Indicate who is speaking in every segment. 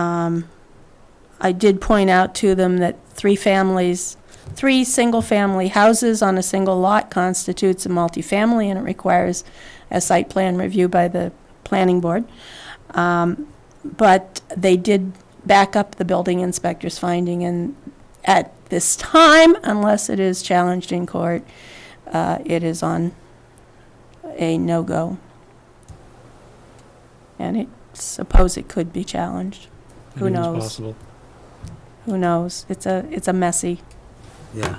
Speaker 1: Um, I did point out to them that three families, three single-family houses on a single lot constitutes a multifamily, and it requires a site plan review by the planning board. Um, But they did back up the building inspector's finding, and at this time, unless it is challenged in court, uh, it is on a no-go. And it, suppose it could be challenged. Who
Speaker 2: Anything's
Speaker 1: knows?
Speaker 2: possible.
Speaker 1: Who knows? It's a, it's a messy.
Speaker 3: Yeah.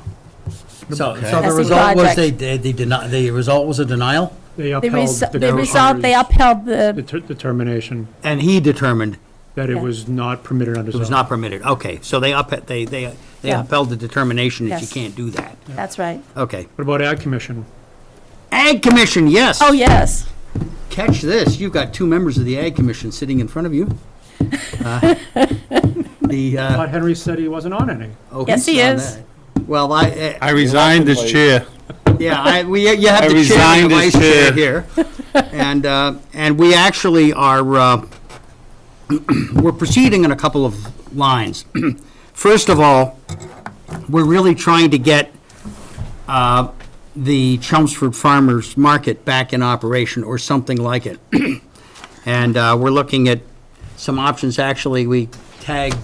Speaker 3: So,
Speaker 4: Okay.
Speaker 3: so
Speaker 1: That's
Speaker 3: the
Speaker 1: a
Speaker 3: result was they,
Speaker 1: project.
Speaker 3: they denied, the result was a denial?
Speaker 2: They
Speaker 1: They
Speaker 2: upheld
Speaker 1: res-
Speaker 2: the
Speaker 1: they resolved, they
Speaker 2: governor's
Speaker 1: upheld the,
Speaker 2: deter- determination
Speaker 3: And he determined
Speaker 2: that it
Speaker 1: Yeah.
Speaker 2: was not permitted under
Speaker 3: it was
Speaker 2: zone.
Speaker 3: not permitted. Okay, so they up, they, they, they
Speaker 1: Yeah.
Speaker 3: upheld the determination that you
Speaker 1: Yes.
Speaker 3: can't do that.
Speaker 1: that's right.
Speaker 3: Okay.
Speaker 2: What about Ag Commission?
Speaker 3: Ag Commission, yes.
Speaker 1: Oh, yes.
Speaker 3: Catch this, you've got two members of the Ag Commission sitting in front of you. Uh, The, uh,
Speaker 2: Todd Henry said he wasn't on any.
Speaker 3: oh,
Speaker 1: Yes,
Speaker 3: he
Speaker 1: he
Speaker 3: saw
Speaker 1: is.
Speaker 3: that. Well, I,
Speaker 5: I resigned as chair.
Speaker 3: Yeah, I, we, you have
Speaker 5: I
Speaker 3: the chair and the
Speaker 5: resigned as
Speaker 3: vice chair here. And, uh, and we actually are, uh, we're proceeding in a couple of lines. First of all, we're really trying to get uh, the Chelmsford Farmers Market back in operation, or something like it. And uh, we're looking at some options, actually, we tagged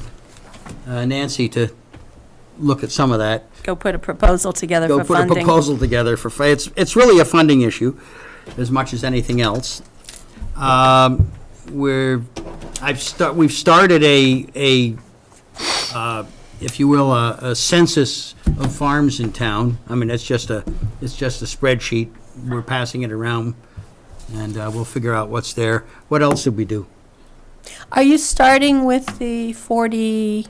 Speaker 3: uh, Nancy to look at some of that
Speaker 1: Go put a proposal together
Speaker 3: go
Speaker 1: for
Speaker 3: put a
Speaker 1: funding.
Speaker 3: proposal together for, fi- it's, it's really a funding issue as much as anything else. Um, We're, I've start, we've started a, a, uh, if you will, a a census of farms in town. I mean, it's just a, it's just a spreadsheet. We're passing it around and uh, we'll figure out what's there. What else did we do?
Speaker 1: Are you starting with the 40A,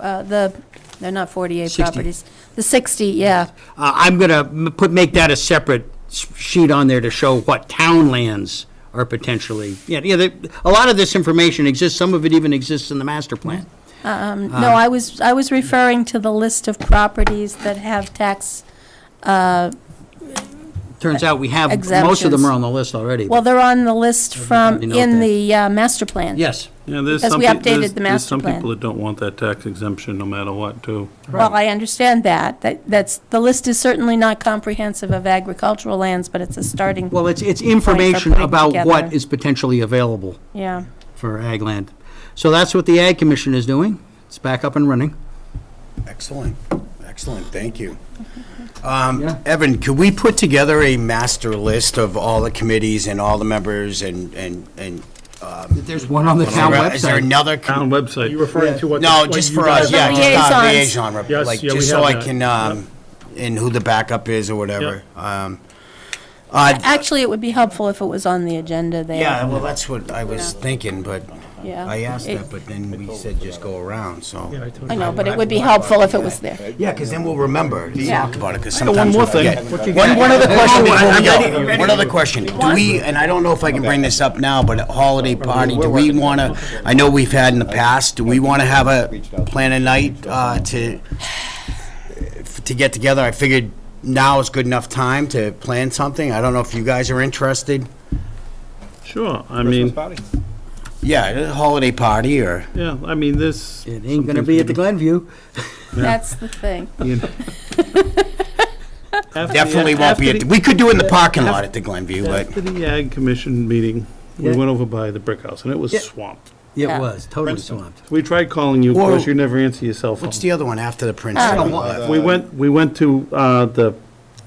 Speaker 1: uh, the, they're not 40A
Speaker 3: 60.
Speaker 1: properties? The 60, yeah.
Speaker 3: Uh, I'm going to put, make that a separate s- sheet on there to show what town lands are potentially, yeah, yeah, they- a lot of this information exists, some of it even exists in the master plan.
Speaker 1: Um,
Speaker 3: Ah.
Speaker 1: No, I was, I was referring to the list of properties that have tax, uh,
Speaker 3: Turns out we have, most of them
Speaker 1: Exemptions.
Speaker 3: are on the list already.
Speaker 1: well, they're on the list from,
Speaker 3: Everybody knows
Speaker 1: in
Speaker 3: that.
Speaker 1: the uh, master plan.
Speaker 3: Yes,
Speaker 5: Yeah, there's
Speaker 1: Because
Speaker 5: some,
Speaker 1: we
Speaker 5: peo-
Speaker 1: updated
Speaker 5: there's,
Speaker 1: the
Speaker 5: there's
Speaker 1: master
Speaker 5: some
Speaker 1: plan.
Speaker 5: people that don't want that tax exemption no matter what, too.
Speaker 1: Well, I understand that. That, that's, the list is certainly not comprehensive of agricultural lands, but it's a starting,
Speaker 3: well, it's, it's information
Speaker 1: putting
Speaker 3: about what
Speaker 1: together.
Speaker 3: is potentially available
Speaker 1: yeah.
Speaker 3: for ag land. So that's what the Ag Commission is doing, it's back up and running.
Speaker 4: Excellent, excellent, thank you.
Speaker 3: Yeah.
Speaker 4: Um, Evan, could we put together a master list of all the committees and all the members and, and, and?
Speaker 3: There's one on the town
Speaker 4: Is there
Speaker 3: website.
Speaker 4: another? com-
Speaker 5: Town
Speaker 2: Are you
Speaker 5: website,
Speaker 2: referring to what?
Speaker 4: No,
Speaker 2: what
Speaker 4: just
Speaker 2: you
Speaker 4: for
Speaker 2: guys-
Speaker 4: us, yeah, just our
Speaker 1: Liaisons.
Speaker 4: liaison, rep-
Speaker 2: Yes,
Speaker 4: like,
Speaker 2: yeah, we
Speaker 4: just so
Speaker 2: have
Speaker 4: I
Speaker 2: that.
Speaker 4: can, um, and who the backup is or whatever. Um, uh,
Speaker 1: Actually, it would be helpful if it was on the agenda there.
Speaker 4: Yeah, well, that's what I was thinking, but
Speaker 1: Yeah.
Speaker 4: I asked
Speaker 1: It-
Speaker 4: that, but then we said just go around,
Speaker 2: Yeah,
Speaker 4: so.
Speaker 1: I
Speaker 2: totally-
Speaker 1: know, but it would be helpful if it was there.
Speaker 4: Yeah, because then we'll remember to
Speaker 1: Yeah.
Speaker 4: talk about it, because
Speaker 5: got one
Speaker 4: sometimes we
Speaker 5: more thing.
Speaker 4: forget. One, one other question before we go. One other question. Do
Speaker 1: One?
Speaker 4: we, and I don't know if I can bring this up now, but at holiday party, do we want to, I know we've had in the past, do we want to have a plan a night uh, to, to get together? I figured now is good enough time to plan something. I don't know if you guys are interested.
Speaker 5: sure, I mean,
Speaker 4: Yeah, a holiday party or,
Speaker 5: yeah, I mean, this.
Speaker 3: It ain't gonna be at the Glenview.
Speaker 1: That's the thing.
Speaker 4: definitely won't be, at- we could do it in the parking lot at the Glenview, but.
Speaker 5: After the Ag Commission meeting, we
Speaker 3: Yeah.
Speaker 5: went over by the brick house and it was
Speaker 3: Yeah.
Speaker 5: swamped.
Speaker 3: It
Speaker 1: Yeah.
Speaker 3: was, totally swamped.
Speaker 5: We tried calling you, of
Speaker 4: Whoa.
Speaker 5: course, you never answer your cell phone.
Speaker 4: What's the other one after the Prince?
Speaker 5: We went, we went to, uh, the,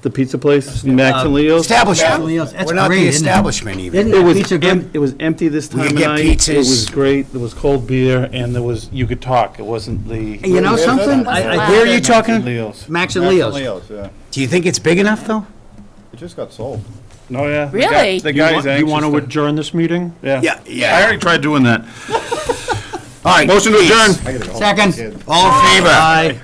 Speaker 5: the pizza place, Max and Leo's.
Speaker 4: Establishment.
Speaker 3: Something else. That's
Speaker 4: We're not
Speaker 3: great,
Speaker 4: the
Speaker 3: isn't it?
Speaker 4: establishment even.
Speaker 3: Isn't
Speaker 5: It was,
Speaker 3: Pizza
Speaker 5: em-
Speaker 3: good?
Speaker 5: it was empty this time
Speaker 4: could
Speaker 5: of
Speaker 4: get
Speaker 5: night. It
Speaker 4: pizzas.
Speaker 5: was great, there was cold beer, and there was, you could talk, it wasn't the.
Speaker 3: You know something? I- I-
Speaker 4: Where are you talking?
Speaker 5: Leo's.
Speaker 3: Max and Leo's.
Speaker 6: yeah.
Speaker 4: Do you think it's big enough, though?
Speaker 6: It just got sold.
Speaker 5: Oh, yeah. The guy-
Speaker 1: Really?
Speaker 5: The
Speaker 2: You
Speaker 5: guy's
Speaker 2: want-
Speaker 5: anxious.
Speaker 2: You want to
Speaker 5: to-
Speaker 2: adjourn this meeting?
Speaker 4: Yeah, yeah.
Speaker 5: I already tried doing that.
Speaker 4: All right.
Speaker 5: Motion to
Speaker 4: please.
Speaker 5: adjourn.
Speaker 3: Second.
Speaker 4: All in favor?
Speaker 3: Aye.